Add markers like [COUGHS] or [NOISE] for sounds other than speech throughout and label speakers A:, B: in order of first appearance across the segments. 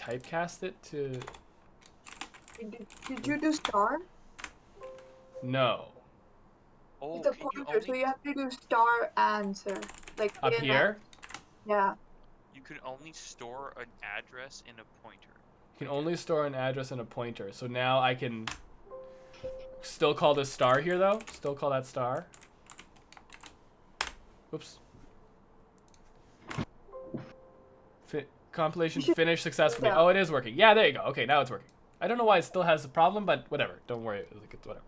A: typecast it to
B: Did, did you do star?
A: no
C: Oh,
B: it's a
C: can you,
B: pointer,
C: only,
B: so you have to do star answer. Like
A: up
B: yeah, no.
A: here.
B: Yeah.
C: you can only store an address in a pointer.
A: You can only store an address and a pointer. So now I can still call this star here though. Still call that star. Oops. Fi- compilation
B: You should-
A: finished successfully.
B: Yeah.
A: Oh, it is working. Yeah, there you go. Okay, now it's working. I don't know why it still has a problem, but whatever. Don't worry. Like it's whatever.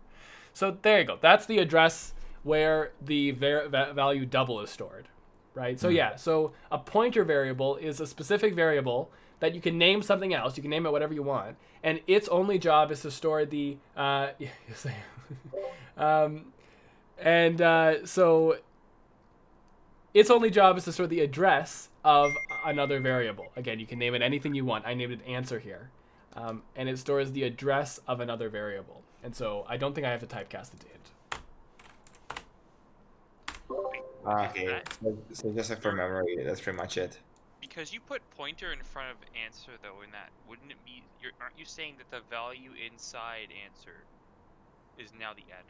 A: So there you go. That's the address where the var- va- value double is stored, right? So
D: Mhm.
A: yeah, so a pointer variable is a specific variable that you can name something else. You can name it whatever you want, and its only job is to store the. Uh, [LAUGHS] yes, I am. [LAUGHS] um, and uh, so its only job is to store the address of another variable. Again, you can name it anything you want. I named it answer here. Um, and it stores the address of another variable. And so I don't think I have to typecast it to int.
D: Ah, okay. So, so just like for memory, that's pretty much it.
C: Because you put pointer in front of answer though in that, wouldn't it be you're, aren't you saying that the value inside answer is now the address?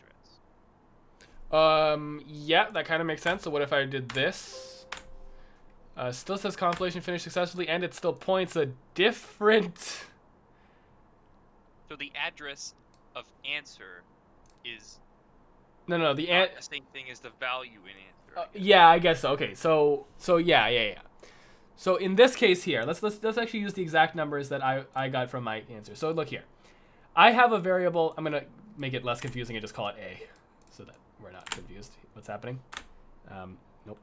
A: Um, yeah, that kind of makes sense. So what if I did this? Uh, still says compilation finished successfully, and it still points a different.
C: So the address of answer is
A: No, no, the
C: not
A: ant.
C: the same thing as the value in answer. I
A: Uh,
C: guess.
A: yeah, I guess so. Okay, so so yeah, yeah, yeah. So in this case here, let's let's let's actually use the exact numbers that I I got from my answer. So look here, I have a variable. I'm gonna make it less confusing and just call it a, so that we're not confused. What's happening? Um, nope.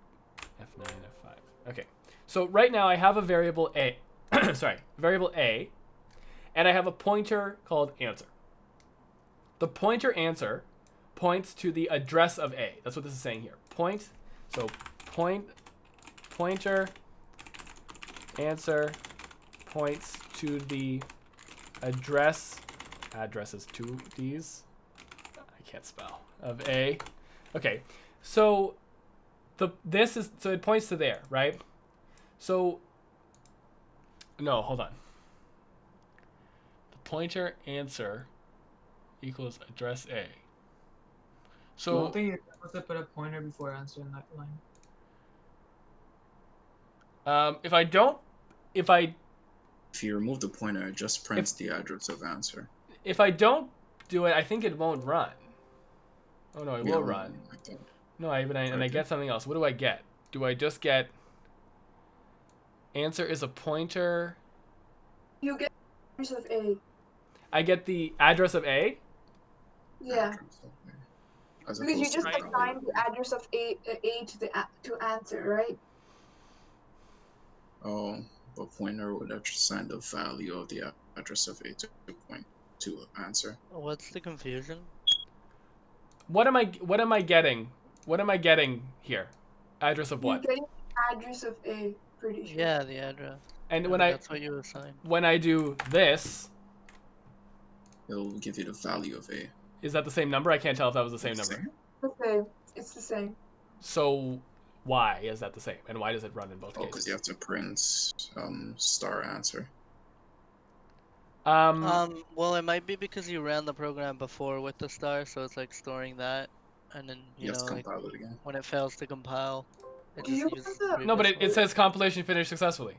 A: F nine F five. Okay. So right now I have a variable a, [COUGHS] sorry, variable a, and I have a pointer called answer. The pointer answer points to the address of A. That's what this is saying here. Point, so point, pointer, answer points to the address, addresses two D's. I can't spell, of A. Okay, so the this is, so it points to there, right? So, no, hold on. The pointer answer equals address A. So
E: don't think you're supposed to put a pointer before answering that line.
A: Um, if I don't, if I
F: If you remove the pointer, it just prints the address of answer.
A: if I don't do it, I think it won't run. Oh no, it
F: Yeah,
A: will run.
F: I think.
A: No, I even I, and I
F: Okay.
A: get something else. What do I get? Do I just get answer is a pointer?
B: You get address of A.
A: I get the address of A.
B: Yeah.
F: As
B: Because you
F: opposed to
B: just
C: Right.
F: value.
B: assign the address of A, uh, A to the a- to answer, right?
F: Oh, but pointer would assign the value of the a- address of a to point to answer.
G: What's the confusion?
A: What am I? What am I getting? What am I getting here? Address of what?
B: You're getting address of A, pretty sure.
G: Yeah, the address.
A: And
G: Yeah,
A: when I
G: That's what you assign.
A: when I do this,
F: It'll give you the value of a.
A: is that the same number? I can't tell if that was the same number.
B: It's the same. It's the same.
A: So why is that the same? And why does it run in both
F: Oh, because
A: cases?
F: you have to print um star answer.
A: Um,
G: Um, well, it might be because you ran the program before with the star, so it's like storing that, and then
F: You,
G: you,
F: have
G: know,
F: to
G: like
F: compile it again.
G: when it fails to compile, it
B: Do you
G: just
B: have
G: uses.
B: the-
G: the
A: no, but it, it
G: previous one.
A: says compilation finished successfully.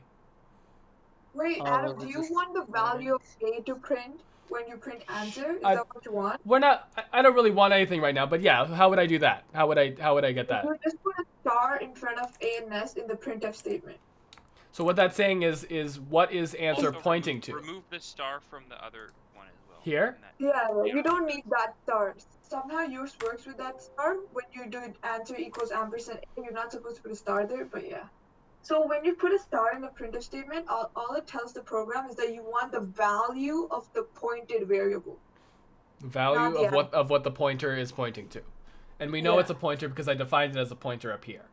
B: Wait,
G: Oh,
B: Adam,
G: well,
B: do
G: this
B: you
G: is
B: want the
G: what it
B: value of A to print when you print answer? Is
A: I-
B: that what you want?
A: We're not. I- I don't really want anything right now, but yeah. How would I do that? How would I? How would I get that?
C: Mm-hmm.
B: You just put a star in front of A and S in the printf statement.
A: So what that's saying is, is what is answer
C: Also, remo-
A: pointing to?
C: Remove the star from the other one as well.
A: Here?
C: in that-
B: Yeah,
C: Yeah.
B: you don't need that star. Somehow yours works with that star. When you do it, answer equals ampersand A, you're not supposed to put a star there, but yeah. So when you put a star in a printf statement, all, all it tells the program is that you want the value of the pointed variable.
A: Value
B: Yeah.
A: of what of what the pointer is pointing to, and we know
B: Yeah.
A: it's a pointer because I defined it as a pointer up here.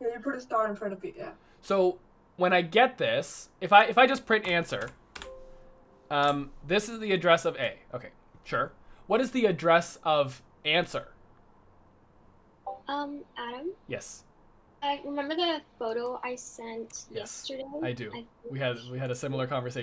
B: Yeah, you put a star in front of it, yeah.
A: So when I get this, if I if I just print answer, um, this is the address of A. Okay, sure. What is the address of answer?
H: Um, Adam,
A: Yes,
H: uh, remember the photo I sent
A: Yes,
H: yesterday?
A: I do.
H: I
A: we had we had a similar conversation.